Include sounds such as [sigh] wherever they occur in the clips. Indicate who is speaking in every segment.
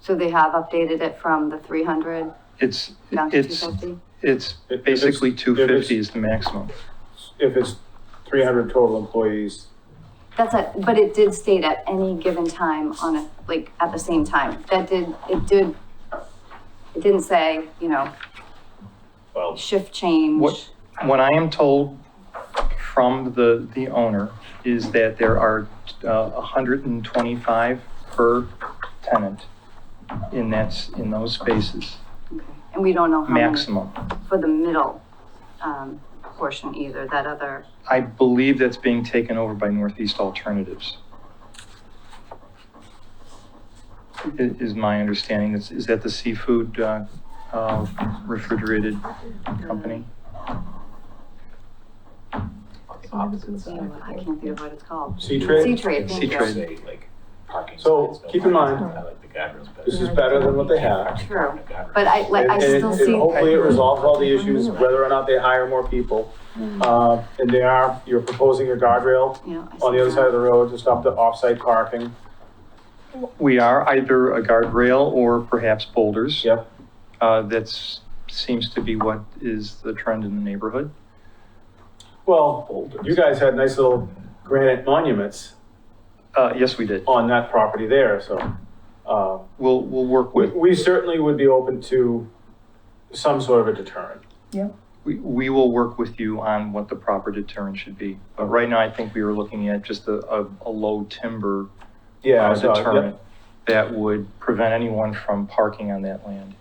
Speaker 1: So they have updated it from the three hundred
Speaker 2: It's,
Speaker 1: down to two
Speaker 2: it's,
Speaker 1: fifty?
Speaker 2: it's
Speaker 3: If- if it's-
Speaker 2: basically
Speaker 3: if it's-
Speaker 2: two fifty is the maximum.
Speaker 3: If it's three hundred total employees,
Speaker 1: That's it, but it did state at any given time on a, like, at the same time. That did, it did, it didn't say, you know,
Speaker 4: Well,
Speaker 1: shift change.
Speaker 2: What- What I am told from the, the owner is that there are, uh, hundred and twenty-five per tenant in that's, in those spaces,
Speaker 1: Okay. And we don't know how many
Speaker 2: maximum.
Speaker 1: for the middle, um, portion either, that other,
Speaker 2: I believe that's being taken over by Northeast Alternatives. I- Is my understanding, is, is that the seafood uh, uh, refrigerated company?
Speaker 4: opposite side.
Speaker 1: I can't think of what it's called.
Speaker 3: Sea
Speaker 1: Sea
Speaker 3: Trade,
Speaker 1: trade, thank
Speaker 2: C-Trade.
Speaker 1: you.
Speaker 4: Say, like, parking
Speaker 3: So,
Speaker 4: space, no
Speaker 3: keep in
Speaker 4: parking
Speaker 3: mind,
Speaker 4: space. I like the guardrails better.
Speaker 3: this is better than what they have.
Speaker 1: True,
Speaker 4: The guardrails.
Speaker 1: but I, like, I
Speaker 3: And- and it-
Speaker 1: still
Speaker 3: and
Speaker 1: see, Mm-hmm.
Speaker 3: Hopefully it resolves all the issues, whether or not they hire more people. Uh, and they are, you're proposing a guardrail
Speaker 1: you know. I
Speaker 3: on the
Speaker 1: see
Speaker 3: other
Speaker 1: that.
Speaker 3: side of the road to stop the off-site parking.
Speaker 2: We are either a guardrail or perhaps boulders.
Speaker 3: Yep.
Speaker 2: Uh, That's, seems to be what is the trend in the neighborhood.
Speaker 3: Well, you guys had nice little granite monuments
Speaker 2: Uh, Yes, we did.
Speaker 3: on that property there, so. Uh,
Speaker 2: We'll, we'll work
Speaker 3: we,
Speaker 2: with,
Speaker 3: we certainly would be open to some sort of a deterrent.
Speaker 2: we we will work with you on what the proper deterrent should be. But right now, I think we were looking at just a, a a low timber
Speaker 3: Yeah,
Speaker 2: uh,
Speaker 3: I saw it, yep.
Speaker 2: deterrent that would prevent anyone from parking on that land.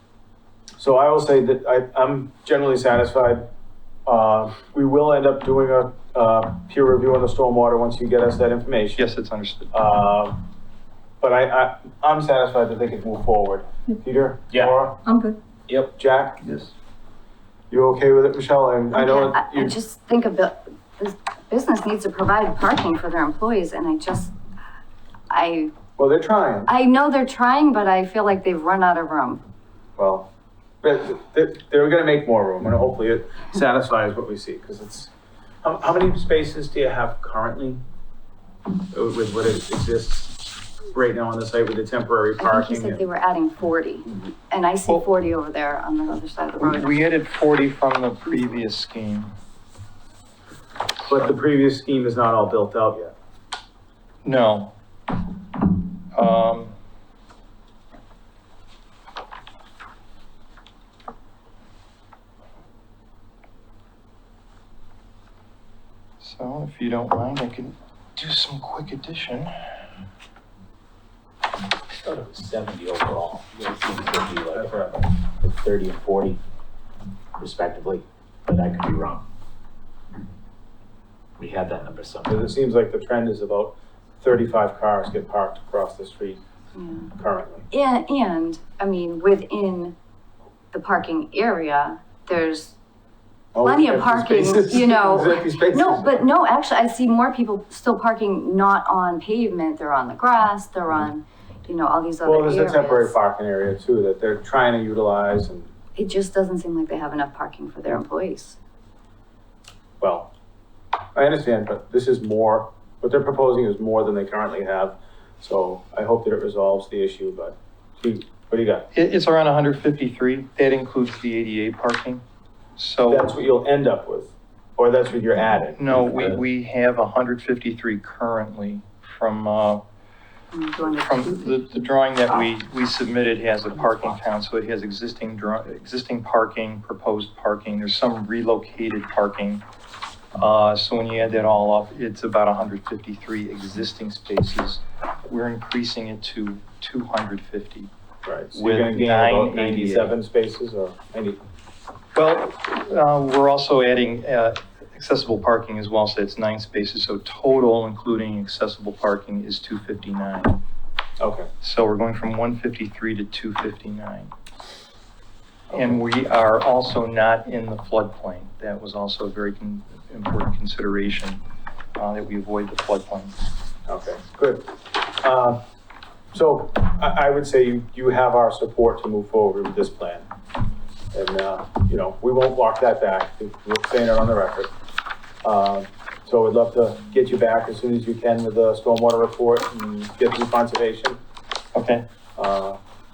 Speaker 3: So I will say that I, I'm generally satisfied. Uh, we will end up doing a, uh, peer review on the stormwater once you get us that information.
Speaker 2: Yes, it's understood.
Speaker 3: Uh, but I, I, I'm satisfied that they can move forward. Peter?
Speaker 4: Yeah.
Speaker 3: Laura?
Speaker 5: I'm good.
Speaker 3: Jack?
Speaker 2: Yes.
Speaker 3: You okay with it, Michelle? And I know
Speaker 1: I,
Speaker 3: that
Speaker 1: I
Speaker 3: you,
Speaker 1: just think of the, this business needs to provide parking for their employees and I just, I,
Speaker 3: well, they're trying.
Speaker 1: I know they're trying, but I feel like they've run out of room.
Speaker 3: Well, but they're, they're gonna make more room and hopefully it satisfies what we see, because it's, how, how many spaces do you have currently? With with what exists right now on the site with the temporary
Speaker 1: I think
Speaker 3: parking? Mm-hmm.
Speaker 1: you said
Speaker 3: and-
Speaker 1: they were adding forty and I see
Speaker 2: Well-
Speaker 1: forty over there on the other side of the
Speaker 2: We-
Speaker 1: road.
Speaker 2: We added 40 from the previous scheme.
Speaker 3: But the previous scheme is not all built out yet.
Speaker 2: No. Um, So if you don't mind, I can do some quick addition.
Speaker 4: I thought it was seventy overall. It seems to be like like thirty and forty respectively, but I could be wrong. We had that number somewhere.
Speaker 3: Because it seems like the trend is about thirty-five cars get parked across the street
Speaker 1: Yeah.
Speaker 3: currently.
Speaker 1: And, and, I mean, within the parking area, there's, Plenty of
Speaker 3: Oh, Empty
Speaker 1: parking,
Speaker 3: spaces.
Speaker 1: you
Speaker 3: [laughs]
Speaker 1: know.
Speaker 3: Empty spaces.
Speaker 1: no, but no, actually, I see more people still parking not on pavement, they're on the grass, they're on, you know, all these other
Speaker 3: Mm-hmm. Well,
Speaker 1: areas.
Speaker 3: there's a temporary parking area too that they're trying to utilize and,
Speaker 1: It just doesn't seem like they have enough parking for their employees.
Speaker 3: well, I understand, but this is more, what they're proposing is more than they currently have. So I hope that it resolves the issue, but gee, what do you got?
Speaker 2: It, it's around 153. That includes the ADA parking.
Speaker 3: That's
Speaker 2: So,
Speaker 3: what you'll end up with, or that's what you're adding.
Speaker 2: no, we, we have 153 currently from, uh,
Speaker 1: I'm going to-
Speaker 2: From the, the drawing that we, we submitted has a parking count, so it has existing draw, existing parking, proposed parking, there's some relocated parking. Uh, so when you add that all up, it's about hundred fifty-three existing spaces. We're increasing it to two hundred fifty.
Speaker 3: Right, so you're
Speaker 2: With
Speaker 3: gonna gain
Speaker 2: 988.
Speaker 3: about ninety-seven spaces or ninety,
Speaker 2: Well, uh, we're also adding, uh, accessible parking as well, so it's nine spaces, so total, including accessible parking, is two fifty-nine.
Speaker 3: okay.
Speaker 2: So we're going from 153 to 259. And we are also not in the floodplain. That was also a very con- important consideration, uh, that we avoid the floodplain.
Speaker 3: Okay, good. Uh, So I, I would say you, you have our support to move forward with this plan. And, uh, you know, we won't walk that back, we're saying it on the record. Uh, So we'd love to get you back as soon as you can with the stormwater report and get through conservation.
Speaker 2: Okay,
Speaker 3: Uh,